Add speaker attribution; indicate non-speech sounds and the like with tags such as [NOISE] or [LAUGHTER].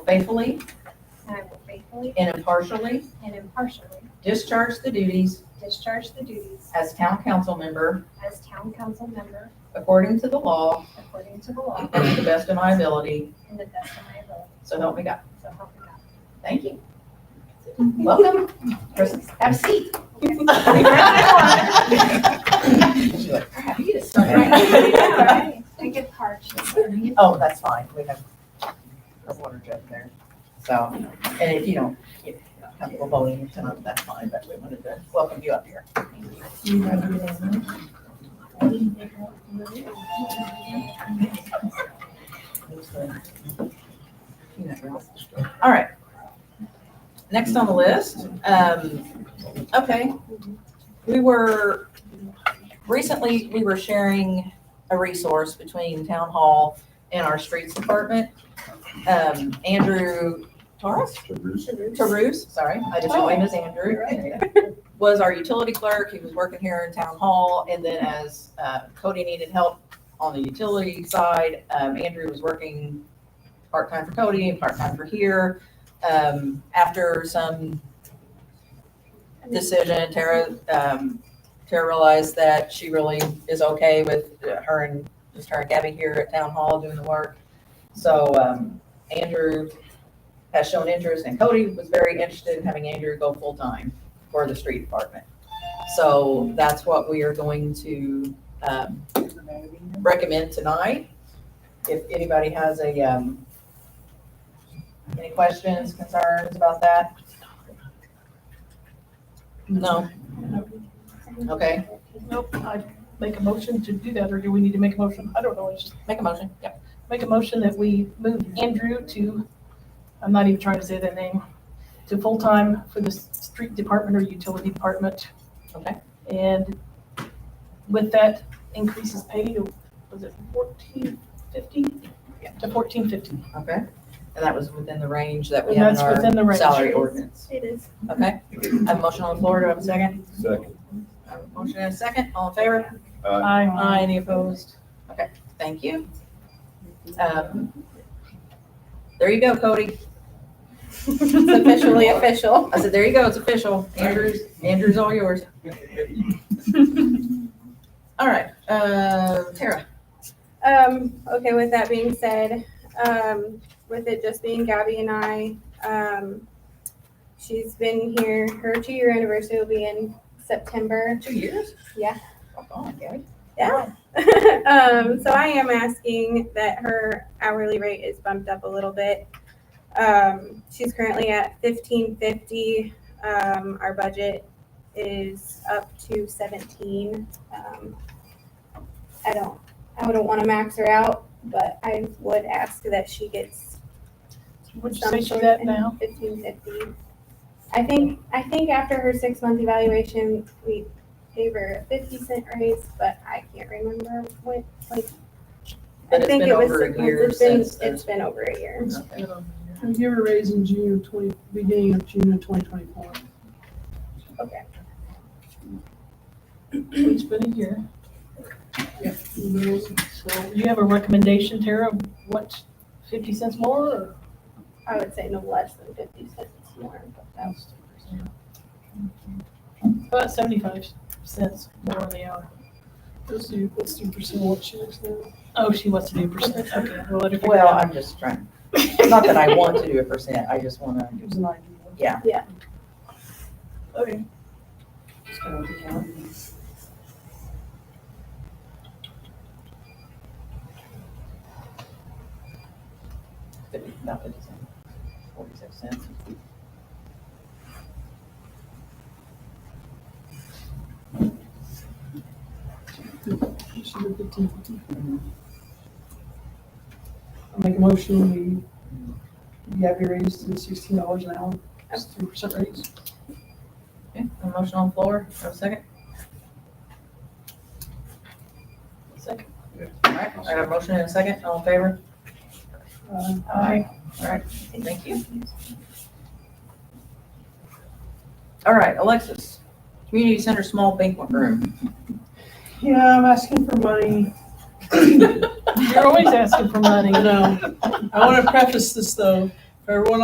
Speaker 1: faithfully
Speaker 2: and I will faithfully
Speaker 1: and impartially
Speaker 2: and impartially
Speaker 1: discharge the duties
Speaker 2: discharge the duties
Speaker 1: as town council member
Speaker 2: as town council member
Speaker 1: according to the law
Speaker 2: according to the law
Speaker 1: and to the best of my ability.
Speaker 2: and the best of my ability.
Speaker 1: So help me God.
Speaker 2: So help me God.
Speaker 1: Thank you. Welcome. Chris, Have a seat. She's like, crap, you just started
Speaker 2: [LAUGHS]
Speaker 1: right
Speaker 2: Alright, I get parched.
Speaker 1: now. Oh, that's fine. We have a water jug there. So, and if you don't get comfortable voting tonight, that's fine, but we wanted to welcome you up here. All right. Next on the list, um, okay. We were, recently, we were sharing a resource between town hall and our streets department. Um, Andrew Torres? Taruse, sorry, I just know him as Andrew, [LAUGHS] was our utility clerk. He was working here in town hall. And then as uh, Cody needed help on the utility side, um, Andrew was working part-time for Cody and part-time for here. Um, After some decision, Tara, um, Tara realized that she really is okay with uh, her and just her and Gabby here at town hall doing the work. So, um, Andrew has shown interest and Cody was very interested in having Andrew go full-time for the street department. So that's what we are going to, um, recommend tonight. If anybody has a, um, any questions, concerns about that? No? Okay,
Speaker 3: Nope, I make a motion to do that, or do we need to make a motion? I don't know, it's just
Speaker 1: make a motion. Yep.
Speaker 3: make a motion that we move Andrew to, I'm not even trying to say that name, to full-time for the s- street department or utility department.
Speaker 1: Okay.
Speaker 3: And with that increases pay to, was it fourteen fifty? Yeah, to fourteen fifty.
Speaker 1: Okay. And that was within the range that we
Speaker 3: And
Speaker 1: have in
Speaker 3: that's within the
Speaker 1: our
Speaker 3: range. Mm-hmm.
Speaker 1: salary ordinance.
Speaker 2: It is.
Speaker 1: Okay? I have a motion on the floor. Do I have a second?
Speaker 4: Second.
Speaker 1: I have a motion and a second. All in favor?
Speaker 3: Aye.
Speaker 1: Any
Speaker 3: [LAUGHS]
Speaker 1: opposed? Okay, thank you. Um, There you go, Cody. It's [LAUGHS]
Speaker 3: [LAUGHS]
Speaker 1: officially official. I said, there you go, it's official. Andrew's, Andrew's all yours. All right, uh, Tara.
Speaker 5: Um, okay, with that being said, um, with it just being Gabby and I, um, she's been here, her two-year anniversary will be in September.
Speaker 1: Two years?
Speaker 5: Yeah.
Speaker 1: Fuck on, Gabby.
Speaker 5: Yeah. [LAUGHS] um, so I am asking that her hourly rate is bumped up a little bit. Um, she's currently at fifteen fifty. Um, our budget is up to seventeen. Um, I don't, I wouldn't want to max her out, but I would ask that she gets
Speaker 3: Would you
Speaker 5: some
Speaker 3: say she's
Speaker 5: sort
Speaker 3: at
Speaker 5: of
Speaker 3: now?
Speaker 5: fifteen fifty. I think, I think after her six-month evaluation, we gave her a fifty cent raise, but I can't remember what, like. I
Speaker 1: But it's
Speaker 5: think
Speaker 1: been
Speaker 5: it was
Speaker 1: over a
Speaker 5: six
Speaker 1: year
Speaker 5: months. It's been-
Speaker 1: since there's-
Speaker 5: It's been over a year.
Speaker 1: Okay.
Speaker 6: We give a raise in June of twenty, beginning of June of twenty twenty-four.
Speaker 5: Okay.
Speaker 3: It's been a year. So you have a recommendation, Tara, of what, fifty cents more or?
Speaker 5: I would say no less than fifty cents more, but that was.
Speaker 3: About seventy-five cents more on the hour.
Speaker 6: Let's do, let's do percent what she looks now.
Speaker 3: Oh, she wants to do percent, okay, we'll let her figure it
Speaker 1: Well,
Speaker 3: out.
Speaker 1: I'm just trying, not that I want to do a percent, I just wanna,
Speaker 6: Gives an idea.
Speaker 3: Okay,
Speaker 1: fifty- not fifty cents, forty-six cents.
Speaker 6: She should be 15. I make a motion, we, you have your raise to sixteen dollars an hour, that's three percent raise.
Speaker 1: Okay, a motion on the floor, have a second?
Speaker 3: second.
Speaker 1: All right, I got a motion and a second, all in favor?
Speaker 6: Uh,
Speaker 3: Aye.
Speaker 1: All right, thank you. All right, Alexis, community center small banquet room.
Speaker 6: Yeah, I'm asking for money.
Speaker 3: You're always asking for money.
Speaker 6: I know. I want to preface this though. Everyone